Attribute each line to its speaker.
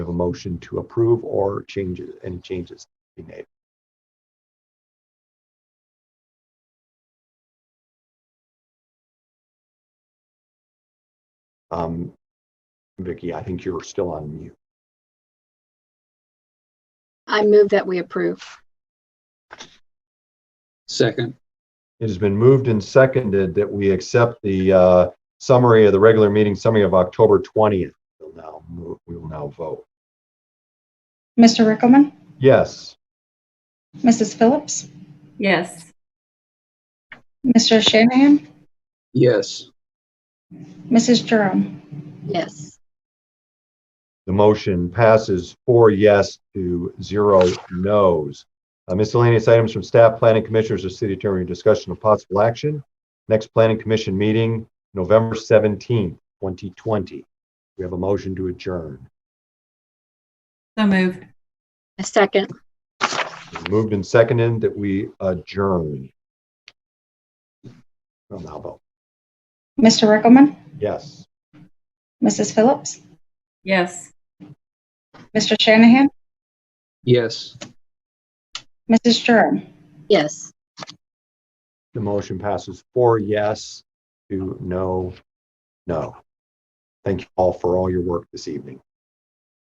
Speaker 1: a motion to approve or changes, any changes to be made? Um, Vicky, I think you're still on mute.
Speaker 2: I move that we approve.
Speaker 3: Second,
Speaker 1: It has been moved and seconded that we accept the uh, summary of the regular meeting summary of October 20th. We'll now move, we will now vote.
Speaker 4: Mr. Rickelman,
Speaker 1: Yes,
Speaker 4: Mrs. Phillips,
Speaker 5: Yes.
Speaker 4: Mr. Shanahan,
Speaker 3: yes,
Speaker 4: Mrs. Jerome,
Speaker 2: Yes.
Speaker 1: the motion passes four yes to zero no's. Uh, Miscellaneous items from staff, planning commissioners, or city attorney, discussion of possible action. Next planning commission meeting, November 17th, 2020. We have a motion to adjourn.
Speaker 5: So moved.
Speaker 2: A second.
Speaker 1: Moved and seconded that we adjourn. We'll now vote.
Speaker 4: Mr. Rickelman,
Speaker 1: Yes.
Speaker 4: Mrs. Phillips,
Speaker 5: Yes.
Speaker 4: Mr. Shanahan,
Speaker 3: yes.
Speaker 4: Mrs. Jerome,
Speaker 2: Yes.
Speaker 1: The motion passes four yes to no, no. Thank you all for all your work this evening.